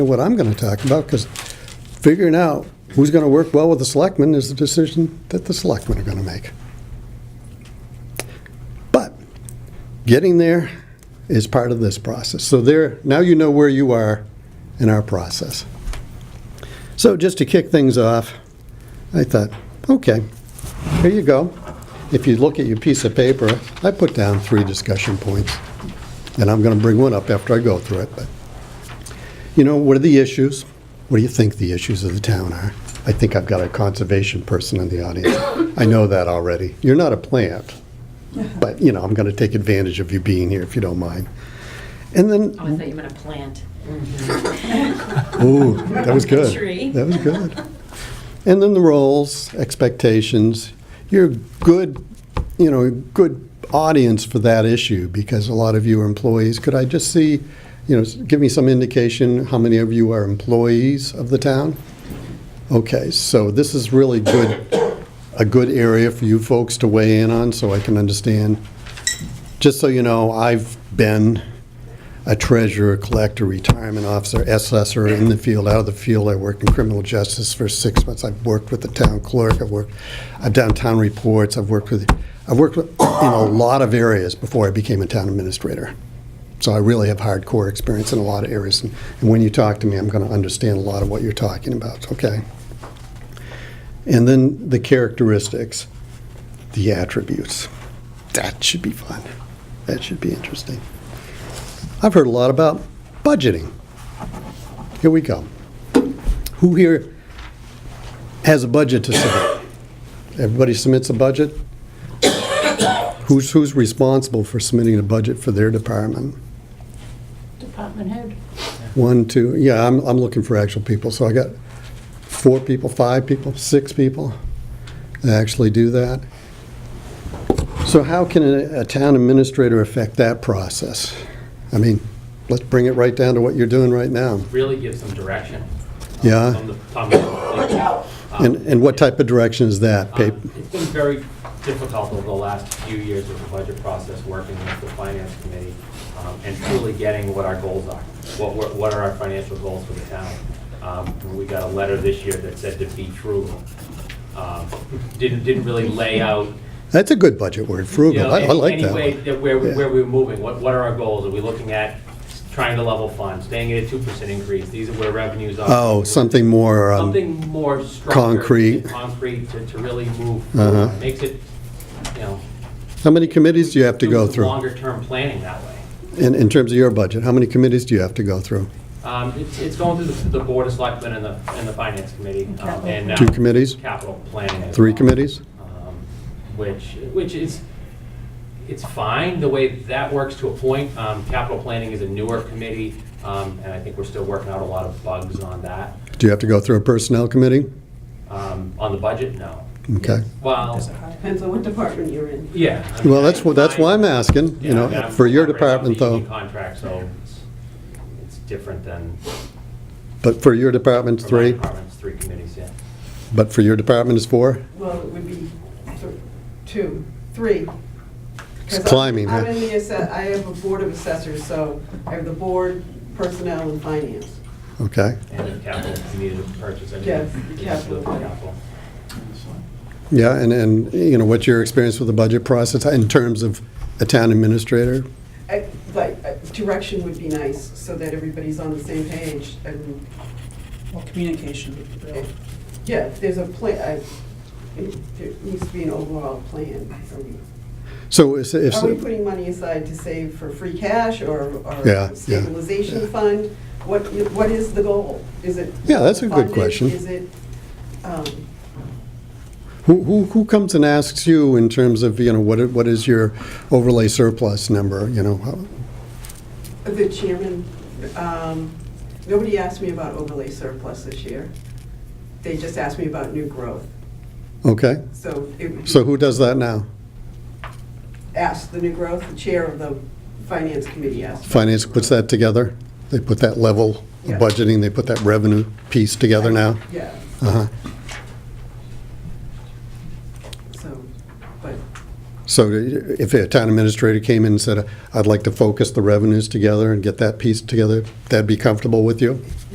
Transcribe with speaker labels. Speaker 1: what I'm going to talk about, because figuring out who's going to work well with the selectmen is the decision that the selectmen are going to make. But getting there is part of this process. So there, now you know where you are in our process. So just to kick things off, I thought, okay, here you go. If you look at your piece of paper, I put down three discussion points, and I'm going to bring one up after I go through it, but you know, what are the issues? What do you think the issues of the town are? I think I've got a conservation person in the audience. I know that already. You're not a plant, but, you know, I'm going to take advantage of you being here if you don't mind. And then,
Speaker 2: Oh, I thought you meant a plant.
Speaker 1: ooh, that was good.
Speaker 2: Tree.
Speaker 1: That was good. And then the roles, expectations. You're good, you know, good audience for that issue because a lot of you are employees. Could I just see, you know, s- give me some indication how many of you are employees of the town? Okay, so this is really good, a good area for you folks to weigh in on so I can understand. Just so you know, I've been a treasurer, collector, retirement officer, assessor in the field, out of the field. I worked in criminal justice for six months. I've worked with the town clerk. I've worked, I've done town reports. I've worked with, I've worked with- in a lot of areas before I became a town administrator. So I really have hardcore experience in a lot of areas. And and when you talk to me, I'm going to understand a lot of what you're talking about, okay? And then the characteristics, the attributes. That should be fun. That should be interesting. I've heard a lot about budgeting. Here we go. Who here has a budget to submit? Everybody submits a budget? Who's, who's responsible for submitting a budget for their department?
Speaker 2: Department head.
Speaker 1: One, two, yeah, I'm, I'm looking for actual people, so I got four people, five people, six people that actually do that. So how can a, a town administrator affect that process? I mean, let's bring it right down to what you're doing right now.
Speaker 3: really give some direction.
Speaker 1: Yeah.
Speaker 3: From the, from the-
Speaker 1: And, and what type of direction is that? Pa-
Speaker 3: Um, It's been very difficult over the last few years with the budget process, working with the finance committee, um, and truly getting what our goals are. What, were- what are our financial goals for the town? Um, We got a letter this year that said to be frugal. Um, Didn't, didn't really lay out
Speaker 1: That's a good budget word,
Speaker 3: you
Speaker 1: frugal.
Speaker 3: know,
Speaker 1: I I
Speaker 3: any-
Speaker 1: like that
Speaker 3: Any way
Speaker 1: one.
Speaker 3: that where,
Speaker 1: Yeah.
Speaker 3: where we're moving, what, what are our goals? Are we looking at trying to level fund, staying at a two percent increase? These are where revenues are.
Speaker 1: Oh, something more, um,
Speaker 3: Something more structured.
Speaker 1: concrete.
Speaker 3: and Concrete to, to really move,
Speaker 1: Uh-huh.
Speaker 3: forward. makes it, you know.
Speaker 1: how many committees do you have to
Speaker 3: do
Speaker 1: go
Speaker 3: some
Speaker 1: through?
Speaker 3: Longer-term planning that way.
Speaker 1: In, in terms of your budget, how many committees do you have to go through?
Speaker 3: Um, it's, it's going through the, the board of selectmen and the, and the finance committee, um, and now.
Speaker 1: Two committees?
Speaker 3: Capital planning. as
Speaker 1: Three
Speaker 3: well.
Speaker 1: committees?
Speaker 3: um, which, which is, it's fine, the way that works to a point. Um, Capital planning is a newer committee, um, and I think we're still working out a lot of bugs on that.
Speaker 1: Do you have to go through a personnel committee?
Speaker 3: Um, On the budget, no.
Speaker 1: Okay.
Speaker 3: Well,
Speaker 4: Depends on what department you're in.
Speaker 3: yeah. I mean,
Speaker 1: Well, that's, what- that's why I'm
Speaker 3: I-
Speaker 1: asking, you
Speaker 3: yeah, I mean,
Speaker 1: know,
Speaker 3: I'm
Speaker 1: for your
Speaker 3: operating off the
Speaker 1: department though,
Speaker 3: union Contract, E so it's, it's different than.
Speaker 1: but for your department's
Speaker 3: for my
Speaker 1: three,
Speaker 3: department's Three committees, yeah.
Speaker 1: but for your department is four?
Speaker 4: Well, it would be th- two, three. 'Cause I'm-
Speaker 1: climbing, huh?
Speaker 4: I'm in the, asse- I have a board of assessors, so I have the board, personnel, and finance.
Speaker 1: Okay,
Speaker 3: And then capital, if you needed to purchase. I mean,
Speaker 4: Yes,
Speaker 3: it's
Speaker 4: capital.
Speaker 3: Capital.
Speaker 1: yeah, and, and, you know, what's your experience with the budget process in terms of a town administrator?
Speaker 4: I- Like, uh, direction would be nice, so that everybody's on the same page, and,
Speaker 5: Well, communication.
Speaker 4: it- yeah, if there's a plan, there needs to be an overall plan. Are we-
Speaker 1: So is, if,
Speaker 4: Are we putting money aside to save for free cash or or
Speaker 1: Yeah, yeah, yeah.
Speaker 4: stabilization fund? What, what is the goal? Is it?
Speaker 1: Yeah, that's a good
Speaker 4: funding?
Speaker 1: question.
Speaker 4: Is it, um,
Speaker 1: who, who, who comes and asks you in terms of, you know, what, i- what is your overlay surplus number, you know? how-
Speaker 4: the chairman, um, nobody asked me about overlay surplus this year. They just asked me about new growth.
Speaker 1: Okay,
Speaker 4: So it would
Speaker 1: so
Speaker 4: be,
Speaker 1: who does that now?
Speaker 4: asked the new growth, the chair of the finance committee asked. about
Speaker 1: Finance
Speaker 4: new
Speaker 1: puts
Speaker 4: growth.
Speaker 1: that together? They put that level of
Speaker 4: Yeah.
Speaker 1: budgeting, they put that revenue piece together now?
Speaker 4: Yeah,
Speaker 1: Uh-huh.
Speaker 4: so, but,
Speaker 1: So if a town administrator came in and said, I'd like to focus the revenues together and get that piece together, that'd be comfortable with you?